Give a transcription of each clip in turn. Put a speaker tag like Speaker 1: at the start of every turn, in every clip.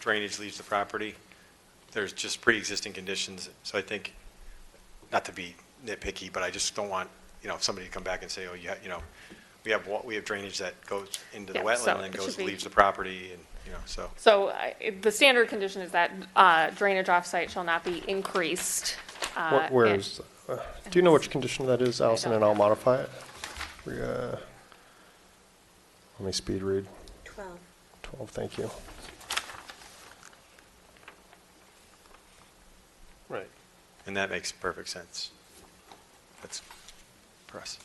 Speaker 1: drainage leaves the property. There's just pre-existing conditions, so I think, not to be nitpicky, but I just don't want, you know, somebody to come back and say, oh, you, ha- you know, we have, wa- we have drainage that goes into the
Speaker 2: Yeah, so
Speaker 1: wetland and then
Speaker 2: it
Speaker 1: goes,
Speaker 2: should be-
Speaker 1: leaves the property, and, you know, so.
Speaker 2: So I- the standard condition is that uh, drainage offsite shall not be increased. uh,
Speaker 3: Wh- Where
Speaker 2: and-
Speaker 3: is, uh, do you know which condition that is, Allison, and I'll modify it? We, uh, Let me speed read.
Speaker 4: 12.
Speaker 3: 12, thank you. Right.
Speaker 1: And that makes perfect sense. That's, for us.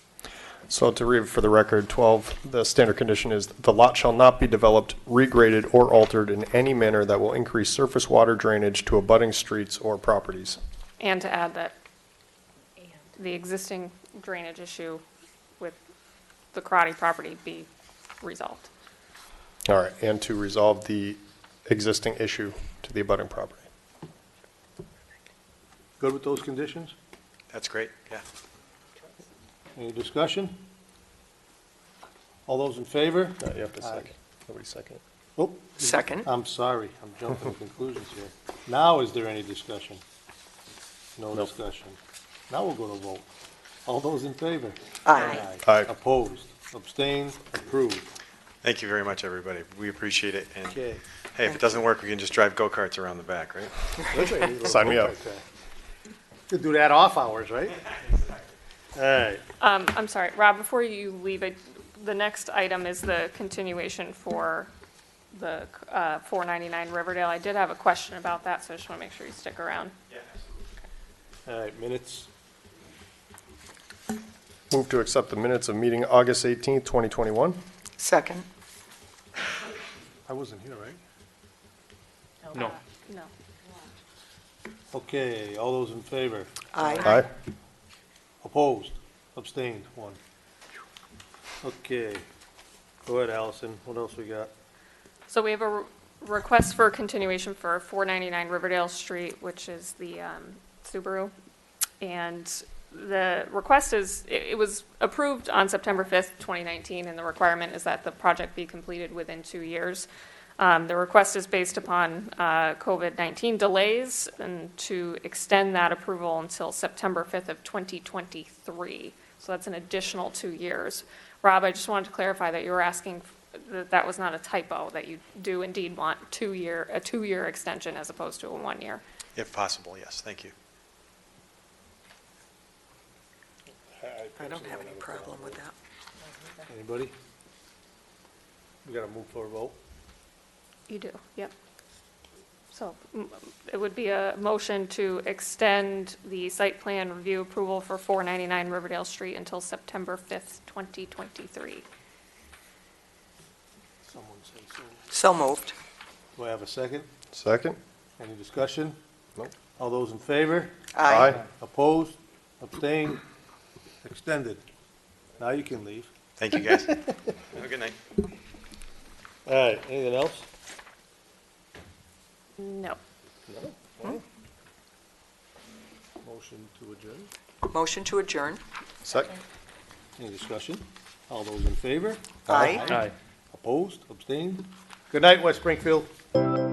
Speaker 3: So to read for the record, 12, the standard condition is, "The lot shall not be developed, regraded, or altered in any manner that will increase surface water drainage to abutting streets or properties."
Speaker 2: And to add that the existing drainage issue with the karate property be resolved.
Speaker 3: All right, and to resolve the existing issue to the abutting property.
Speaker 5: Good with those conditions?
Speaker 1: That's great, yeah.
Speaker 5: Any discussion? All those in favor?
Speaker 3: Uh, You have to
Speaker 5: Aye.
Speaker 3: second. Nobody second.
Speaker 5: Oh,
Speaker 6: Second.
Speaker 5: I'm sorry, I'm jumping to conclusions here. Now, is there any discussion? No discussion. Now we'll go to vote. All those in favor?
Speaker 6: Aye.
Speaker 3: Aye.
Speaker 5: Opposed, abstained, approved.
Speaker 1: Thank you very much, everybody. We appreciate it, and, hey,
Speaker 5: Okay.
Speaker 1: if it doesn't work, we can just drive go-karts around the back, right?
Speaker 3: Sign me up.
Speaker 5: Could do that off hours, right? All right,
Speaker 2: Um, I'm sorry, Rob, before you leave, I- the next item is the continuation for the uh, 499 Riverdale. I did have a question about that, so I just want to make sure you stick around.
Speaker 5: all right, minutes.
Speaker 3: Move to accept the minutes of meeting August 18th, 2021.
Speaker 6: Second.
Speaker 5: I wasn't here, right?
Speaker 2: No. No.
Speaker 5: Okay, all those in favor?
Speaker 6: Aye.
Speaker 3: Aye.
Speaker 5: Opposed, abstained, one. Okay, go ahead, Allison, what else we got?
Speaker 2: So we have a re- request for continuation for 499 Riverdale Street, which is the um, Subaru. And the request is, it it was approved on September 5th, 2019, and the requirement is that the project be completed within two years. Um, The request is based upon uh, COVID-19 delays and to extend that approval until September 5th of 2023. So that's an additional two years. Rob, I just wanted to clarify that you were asking, f- that that was not a typo, that you do indeed want two-year, a two-year extension as opposed to a one-year.
Speaker 1: If possible, yes, thank you.
Speaker 6: I don't have any problem with that.
Speaker 5: Anybody? We gotta move for a vote.
Speaker 2: You do, yep. So m- it would be a motion to extend the site plan review approval for 499 Riverdale Street until September 5th, 2023.
Speaker 5: Someone say so.
Speaker 6: So moved.
Speaker 5: Do I have a second?
Speaker 3: Second?
Speaker 5: Any discussion?
Speaker 3: Nope.
Speaker 5: All those in favor? Opposed, abstained, extended. Now you can leave.
Speaker 1: Thank you, guys. Have a good night.
Speaker 5: All right, anything else?
Speaker 2: No.
Speaker 5: Motion to adjourn.
Speaker 6: Motion to adjourn.
Speaker 3: Second?
Speaker 5: Any discussion? All those in favor?
Speaker 6: Aye.
Speaker 5: Opposed, abstained? Good night, West Springfield.